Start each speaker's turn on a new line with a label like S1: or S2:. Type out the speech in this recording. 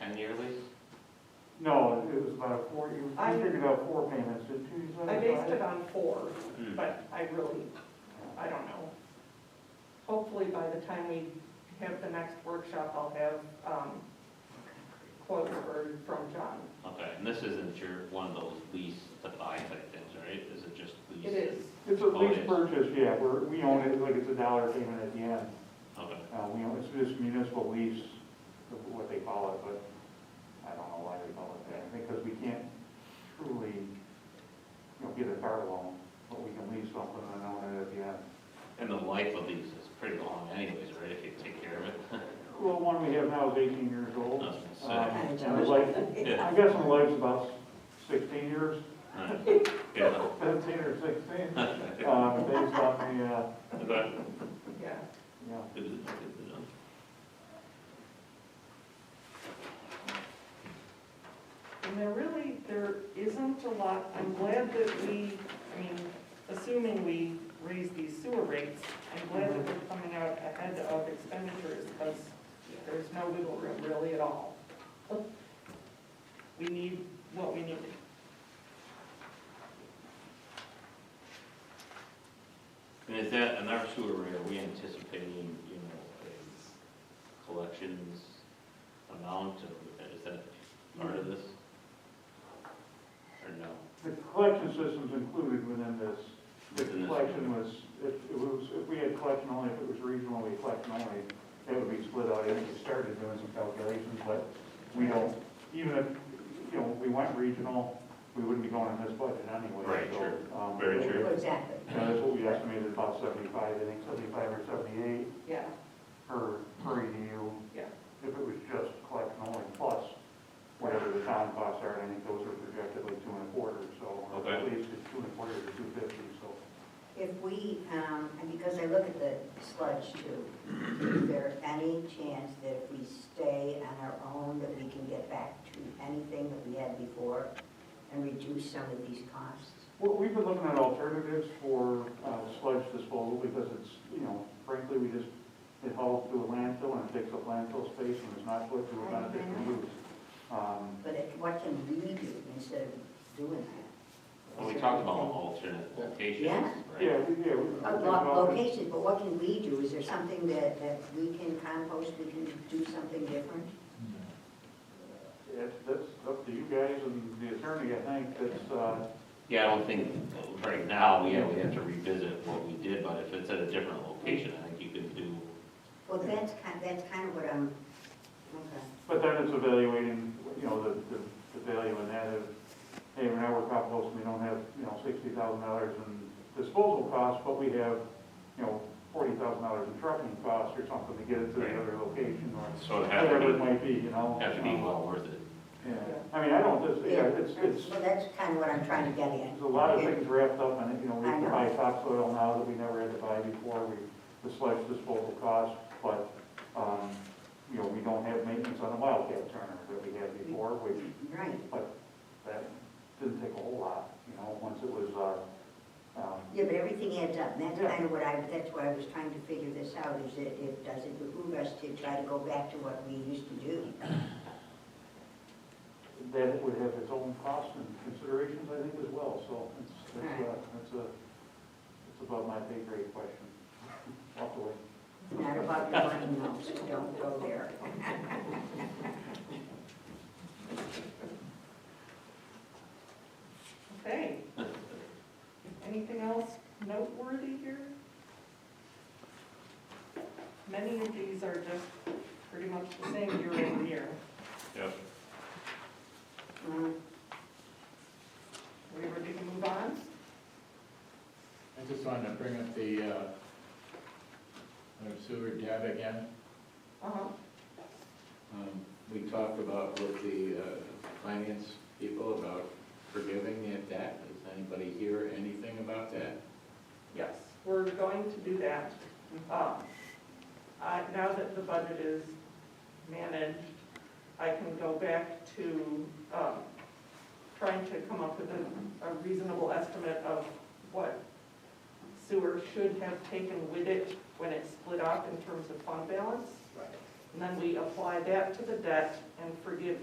S1: And yearly?
S2: No, it was about a four, you
S3: I-
S2: you figured out four payments, did two, you said?
S3: I based it
S2: five?
S3: on four,
S1: Hmm.
S3: but I really, I don't know. Hopefully by the time we have the next workshop, I'll have, um, quotes for, from John.
S1: Okay, and this isn't your, one of those lease to buy type things, right? Is it just lease?
S3: It is,
S2: It's a
S1: Oh, it
S2: lease
S1: is.
S2: purchase, yeah, we're, we own it, like it's a dollar payment at the end.
S1: Okay,
S2: Uh, we own, it's this municipal lease, what they call it, but I don't know why they call it that, because we can't truly, you know, get a car loan, but we can lease something and own it at the end.
S1: and the life of these is pretty long anyways, right, if you take care of it?
S2: Well, one we have now is eighteen years
S1: I
S2: old.
S1: was
S2: Um,
S1: gonna say.
S2: And the life,
S1: Yeah.
S2: I guess the life's about sixteen years,
S1: Alright. Yeah.
S2: fifteen or sixteen, uh, based on the, uh,
S1: Okay.
S3: yeah.
S2: yeah.
S1: Good to know, good to know.
S3: And there really, there isn't a lot, I'm glad that we, I mean, assuming we raise these sewer rates, I'm glad that we're coming out ahead of expenditures, because there's no wiggle room really at all. We need what we need.
S1: And is that, in our sewer rate, are we anticipating, you know, a collections amount, or is that part of this? Or no?
S2: The collection system's included within this. The
S1: Within this
S2: collection was, if it was, if we had collection only, if it was regional, we collection only, that would be split out. I think we started doing some calculations, but we don't, even if, you know, we went regional, we wouldn't be going in this budget anyway.
S1: Right,
S2: so,
S1: true.
S2: um,
S1: Very true.
S4: Exactly.
S2: you know, that's what we estimated, about seventy-five, I think seventy-five or seventy-eight
S3: Yeah,
S2: per, per EDU.
S3: Yeah.
S2: If it was just collection only plus whatever the town costs are, and I think those are projected like two and a quarter, so. or At
S1: Okay.
S2: least it's two and a quarter to two fifty, so.
S4: If we, um, and because I look at the sludge too, is there any chance that if we stay on our own, that we can get back to anything that we had before and reduce some of these costs?
S2: Well, we've been looking at alternatives for uh, sludge disposal because it's, you know, frankly, we just, it hauls to a landfill and it takes up landfill space and is not put to a beneficial use. Um,
S4: But it- what can we do instead of doing that?
S1: Well, we talked about alternate locations,
S4: Yeah.
S1: right?
S2: Yeah, we- yeah. we-
S4: Uh, lo- Locations, but what can we do? Is there something that, that we can compost, we can do something different?
S2: It's- That's up to you guys and the attorney, I think, that's, uh,
S1: Yeah, I don't think, uh, right now, yeah, we have to revisit what we did, but if it's at a different location, I think you could do,
S4: Well, that's kind, that's kind of what I'm, okay.
S2: But then it's evaluating, you know, the, the, the value in that of, hey, we're now we're composting, we don't have, you know, sixty thousand dollars in disposal costs, but we have, you know, forty thousand dollars in trucking costs or something to get it to the
S1: Right.
S2: other location or
S1: so it'd have
S2: whatever it
S1: to
S2: might be, you know? Um,
S1: be, have to be well worth it.
S2: Yeah, I mean, I don't, just yeah, it's, it's,
S4: Well, that's kind of what I'm trying to get at.
S2: there's a lot of things wrapped up in it, you know, we
S4: I know.
S2: buy topsoil now that we never had to buy before, we, the sludge disposal costs, but, um, you know, we don't have maintenance on the wildcat turner that we had before, which
S4: Right.
S2: that didn't take a whole lot, you know, once it was, uh, um,
S4: Yeah, but everything adds up, and that's
S2: Yeah.
S4: kind of what I, that's why I was trying to figure this out, is it, it, does it behoove us to try to go back to what we used to do?
S2: that it would have its own costs and considerations, I think, as well, so it's, it's, uh,
S4: Alright.
S2: it's a, it's above my pay grade question. Walk away.
S4: Not about your money, no, so don't go there.
S3: okay. Anything else noteworthy here? Many of these are just pretty much the same year over year. Mm.
S1: Yep.
S4: Um,
S3: We ready to move on?
S5: I just wanted to bring up the, uh, uh, sewer tab again.
S3: Uh-huh,
S5: Um, We talked about with the uh, finance people about forgiving that debt. Does anybody hear anything about that?
S3: yes, we're going to do that. Um, I, now that the budget is managed, I can go back to, um, trying to come up with a, a reasonable estimate of what sewer should have taken with it when it's split up in terms of fund balance. And then we apply that to the debt and forgive